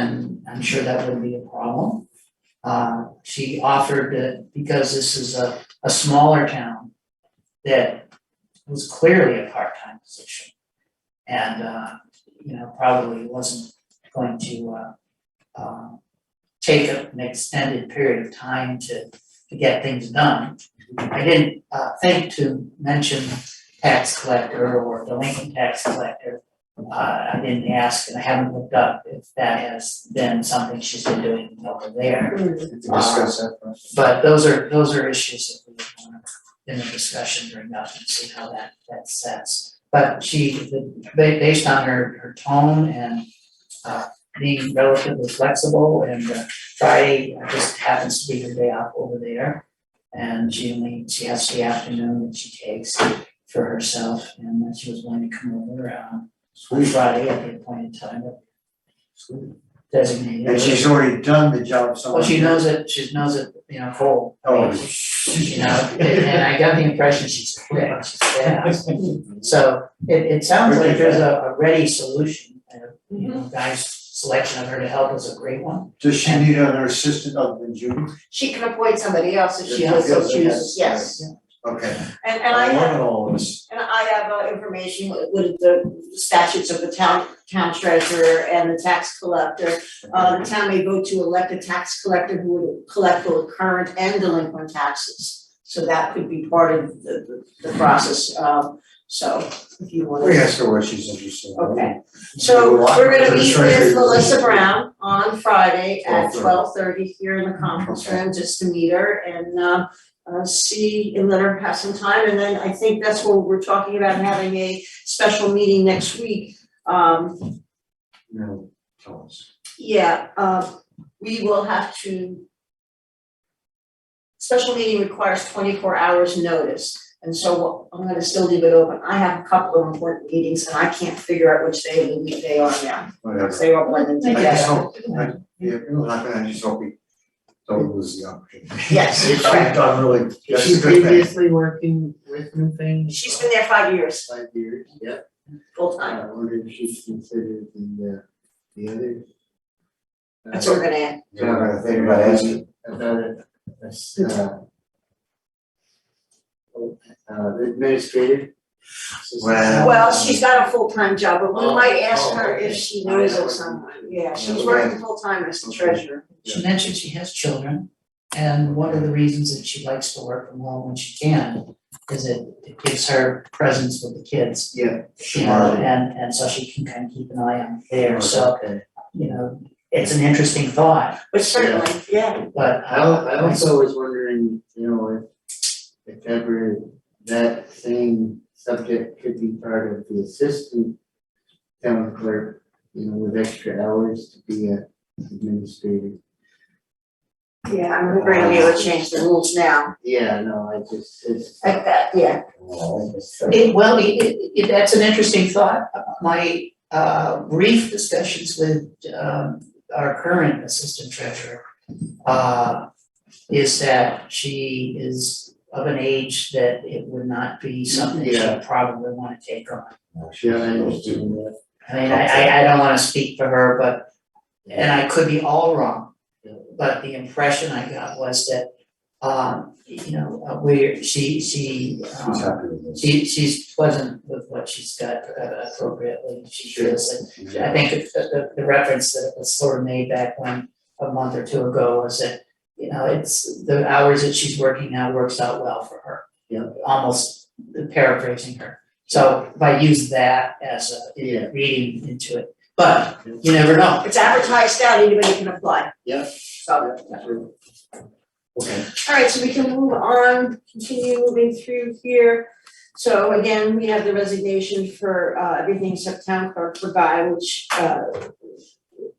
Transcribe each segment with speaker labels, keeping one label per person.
Speaker 1: and I'm sure that would be a problem. Uh, she offered that because this is a, a smaller town, that was clearly a part-time position. And, uh, you know, probably wasn't going to, uh, um, take an extended period of time to, to get things done. I didn't, uh, think to mention tax collector or delinquent tax collector. Uh, I didn't ask and I haven't looked up if that has been something she's been doing over there.
Speaker 2: Discuss that first.
Speaker 1: But those are, those are issues that we would want to, in the discussion during that and see how that, that sets. But she, the- ba- based on her, her tone and, uh, being relatively flexible and uh, Friday just happens to be her day off over there. And she only, she has the afternoon that she takes for herself and that she was willing to come over, um,
Speaker 2: Sweet,
Speaker 1: Friday at the appointed time that
Speaker 2: sweet.
Speaker 1: designated.
Speaker 2: And she's already done the job, so.
Speaker 1: Well, she knows it, she knows it, you know, cold.
Speaker 2: Oh.
Speaker 1: You know, and- and I got the impression she's quick, she's fast. So it, it sounds like there's a, a ready solution. and, You
Speaker 3: Mm-hmm.
Speaker 1: know, Guy's selection of her to help is a great one.
Speaker 2: Does she need another assistant other than Judy?
Speaker 3: She can appoint somebody else if she
Speaker 1: Yeah,
Speaker 3: also
Speaker 2: yeah,
Speaker 3: chooses,
Speaker 2: yeah.
Speaker 3: yes.
Speaker 2: Okay.
Speaker 3: And and I have,
Speaker 2: One of all of us.
Speaker 3: and I have uh, information with the statutes of the town town treasurer and the tax collector. Uh the town may vote to elect a tax collector who would collect both current and delinquent taxes. So that could be part of the the the process, um so if you want
Speaker 2: We
Speaker 3: to.
Speaker 2: asked her what she's interested in.
Speaker 3: Okay. So we're gonna meet with Melissa Brown on Friday at
Speaker 2: 12:30.
Speaker 3: twelve thirty here in the conference
Speaker 2: Okay.
Speaker 3: room, just to meet her and uh uh see and let her have some time, and then I think that's what we're talking about, having a special meeting next week. Um
Speaker 2: No, tell us.
Speaker 3: yeah, uh we will have to. Special meeting requires twenty four hours notice, and so I'm gonna still leave it open, I have a couple of important meetings and I can't figure out which day of the week they are now.
Speaker 2: Whatever.
Speaker 3: They were blended
Speaker 2: I
Speaker 3: together.
Speaker 2: just hope, I, yeah, we're not gonna, I just hope we don't lose the opportunity.
Speaker 3: Yes,
Speaker 2: We've
Speaker 3: correct.
Speaker 2: done really, that's a
Speaker 4: She's
Speaker 2: good thing.
Speaker 4: previously working with new things.
Speaker 3: She's been there five years,
Speaker 2: Five years, yeah.
Speaker 3: full time.
Speaker 2: I wonder if she's considered the, uh, the other.
Speaker 3: That's what we're gonna add.
Speaker 2: Yeah, I'm gonna think about asking.
Speaker 5: about it, that's, uh.
Speaker 2: oh,
Speaker 5: Uh, administrative.
Speaker 2: Well-
Speaker 3: Well, she's got a full-time job, but we
Speaker 5: Um, Oh,
Speaker 3: might ask
Speaker 5: oh,
Speaker 3: her if
Speaker 5: okay.
Speaker 3: she knows of someone. Yeah, she's
Speaker 2: Okay.
Speaker 3: working full-time as the
Speaker 2: Okay.
Speaker 3: treasurer.
Speaker 1: She mentioned she has children, and one of the reasons that she likes to work from home when she can is it, it gives her presence with the kids.
Speaker 2: Yeah,
Speaker 1: You know,
Speaker 2: Sure.
Speaker 1: and, and so she can kind of keep an eye on there, so,
Speaker 5: Okay.
Speaker 1: you know, it's an interesting thought,
Speaker 3: But certainly, yeah,
Speaker 1: but. uh,
Speaker 5: I al- I also was wondering, you know, if if ever that same subject could be part of the assistant town clerk, you know, with extra hours to be a administrator.
Speaker 3: yeah, I'm agreeing we would change the rules now.
Speaker 5: Yeah, no, I just, it's.
Speaker 3: Like that, yeah.
Speaker 5: Well, I just-
Speaker 1: It, well, it, it, it- that's an interesting thought. My, uh, brief discussions with, um, our current assistant treasurer, uh, is that she is of an age that it would not be something she
Speaker 5: Yeah.
Speaker 1: would probably wanna take on.
Speaker 5: Yeah, I understand that.
Speaker 1: I mean, I, I, I don't wanna speak for her, but, and I could be all wrong,
Speaker 5: Yeah.
Speaker 1: but the impression I got was that, um, you know, uh, where she, she, um,
Speaker 2: She's happy with this.
Speaker 1: she she's pleasant with what she's got uh, appropriately, she feels it. I think it- the the the reference that was sort of made back when, a month or two ago, was that, you know, it's the hours that she's working now works out well for her.
Speaker 5: Yeah.
Speaker 1: Almost paraphrasing her, so if I use that as
Speaker 5: Yeah.
Speaker 1: a reading into it, but you never know.
Speaker 3: It's advertised out, anybody can apply.
Speaker 5: Yeah.
Speaker 3: So,
Speaker 2: Okay.
Speaker 3: all right, so we can move on, continue moving through here. So again, we have the resignation for uh everything except town clerk for Guy, which uh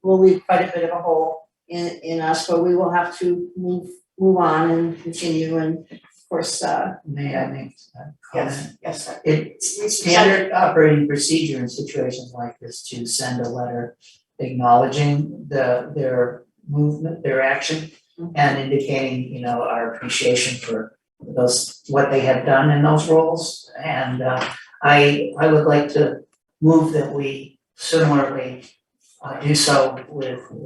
Speaker 3: will leave quite a bit of a hole in in us, but we will have to move move on and continue and of course, uh
Speaker 1: May I make a comment?
Speaker 3: yes, yes, sir.
Speaker 1: It's standard operating procedure in situations like this to send a letter acknowledging the, their movement, their action, and indicating, you know, our appreciation for those, what they have done in those roles. And uh, I, I would like to move that we similarly uh, do so with